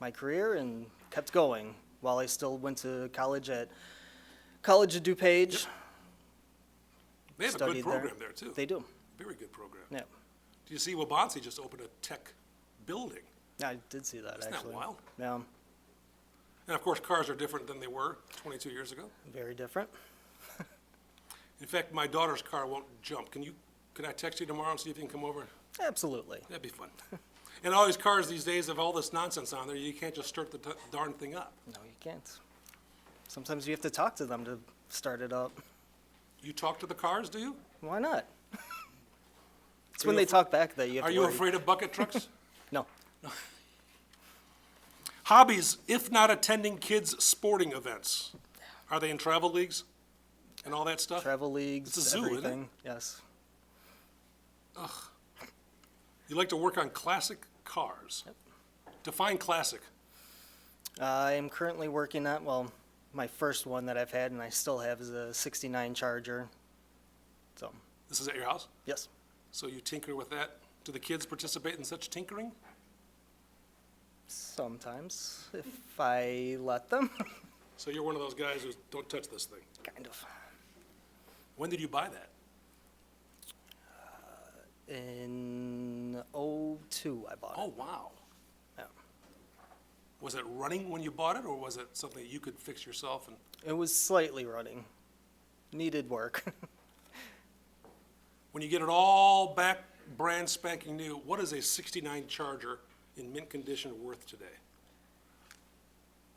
my career and kept going while I still went to college at College of DuPage. They have a Studied good there. program there, too. They do. Very good program. Yeah. Do you see Wabansie just opened a tech building? Yeah, I did see that Isn't that actually. wild? Yeah, And of course, cars are different than they were 22 years ago. very different. In fact, my daughter's car won't jump. Can you, can I text you tomorrow and see if you can come over? Absolutely. That'd be fun. And all these cars these days have all this nonsense on there. You can't just start the t- darn thing up. No, you can't. Sometimes you have to talk to them to start it up. You talk to the cars, do you? Why not? It's Are when you they afra- talk back that you have Are to you worry. afraid of bucket trucks? No. Hobbies, if not attending kids' sporting events. Are they in travel leagues and all that stuff? Travel leagues, It's a zoo, isn't it? everything. Yes. You like to work on classic cars. Define classic. Uh, I am currently working on, well, my first one that I've had and I still have is a 69 Charger. So, This is at your house? yes. So you tinker with that? Do the kids participate in such tinkering? Sometimes, if I let them. So you're one of those guys who don't touch this thing. kind of. When did you buy that? In '02, I bought it. Oh, wow. Yeah. Was it running when you bought it, or was it something you could fix yourself? And It was slightly running. Needed work. when you get it all back, brand spanking new, what is a 69 Charger in mint condition worth today?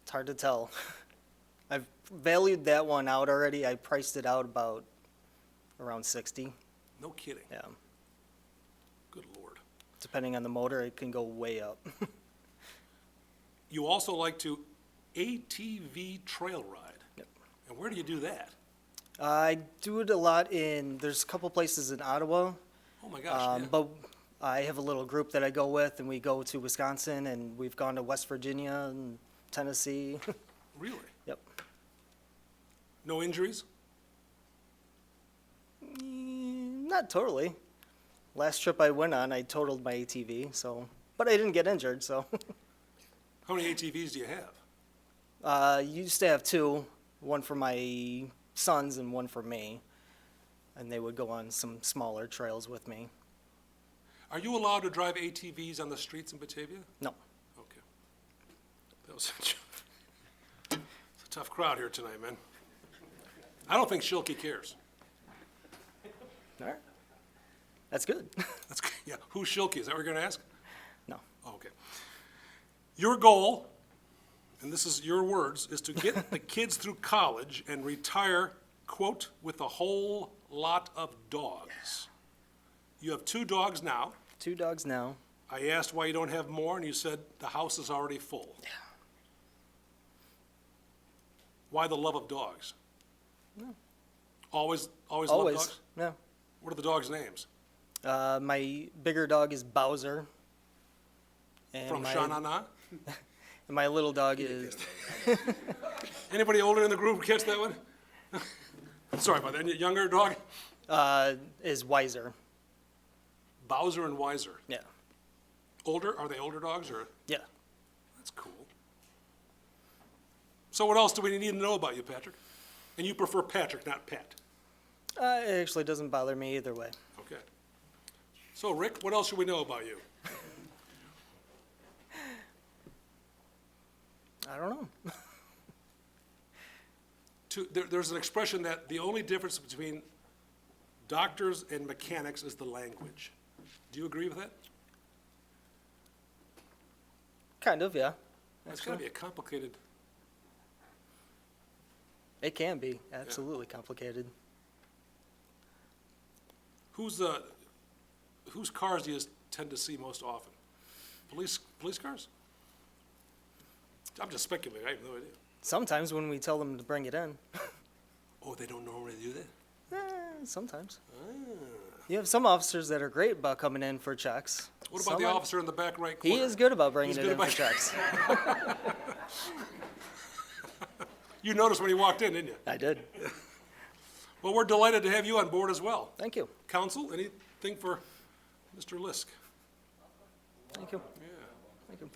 It's hard to tell. I've valued that one out already. I priced it out about around 60. No kidding. Yeah. Good lord. Depending on the motor, it can go way up. You also like to ATV trail ride. Yep. And where do you do that? I do it a lot in, there's a couple places in Ottawa, Oh my gosh. um, yeah. but I have a little group that I go with, and we go to Wisconsin, and we've gone to West Virginia and Tennessee. Really? Yep. No injuries? Mm, Not totally. Last trip I went on, I totaled my ATV, so, but I didn't get injured, so. How many ATVs do you have? Uh, used to have two, one for my sons and one for me. And they would go on some smaller trails with me. Are you allowed to drive ATVs on the streets in Batavia? No, Okay. That was a, it's a tough crowd here tonight, man. I don't think Shilke cares. all right. That's good. That's, yeah, who's Shilke? Is that what you're going to ask? no, Oh, okay. Your goal, and this is your words, is to get the kids through college and retire, quote, with a whole lot of dogs. You have two dogs now. two dogs now. I asked why you don't have more, and you said the house is already full. Why the love of dogs? Always, always love Always. dogs? No. What are the dogs' names? Uh, my bigger dog is Bowser. And From my, Sha-na-na? And my little dog is. Anybody older in the group catch that one? Sorry about that. Any Younger dog? Uh, is Wiser. Bowser and Wiser. Yeah. Older, are they older dogs or? Yeah. That's cool. So what else do we need to know about you, Patrick? And you prefer Patrick, not Pat? Uh, it actually doesn't bother me either way. Okay. So Rick, what else should we know about you? I don't know. to, there, there's an expression that the only difference between doctors and mechanics is the language. Do you agree with that? kind of, yeah. That's gotta be a complicated, It can be absolutely complicated. who's, uh, whose cars do you tend to see most often? Police, police cars? I'm just speculating, I have no idea. Sometimes when we tell them to bring it in, Oh, they don't normally do that? eh, sometimes. Ah. You have some officers that are great about coming in for checks. What about the Some are- officer in the back right corner? He is good about bringing He's it in good for about- checks. You noticed when he walked in, didn't you? I did. Well, we're delighted to have you on board as well. Thank you. Counsel, anything for Mr. Lisk? Thank you.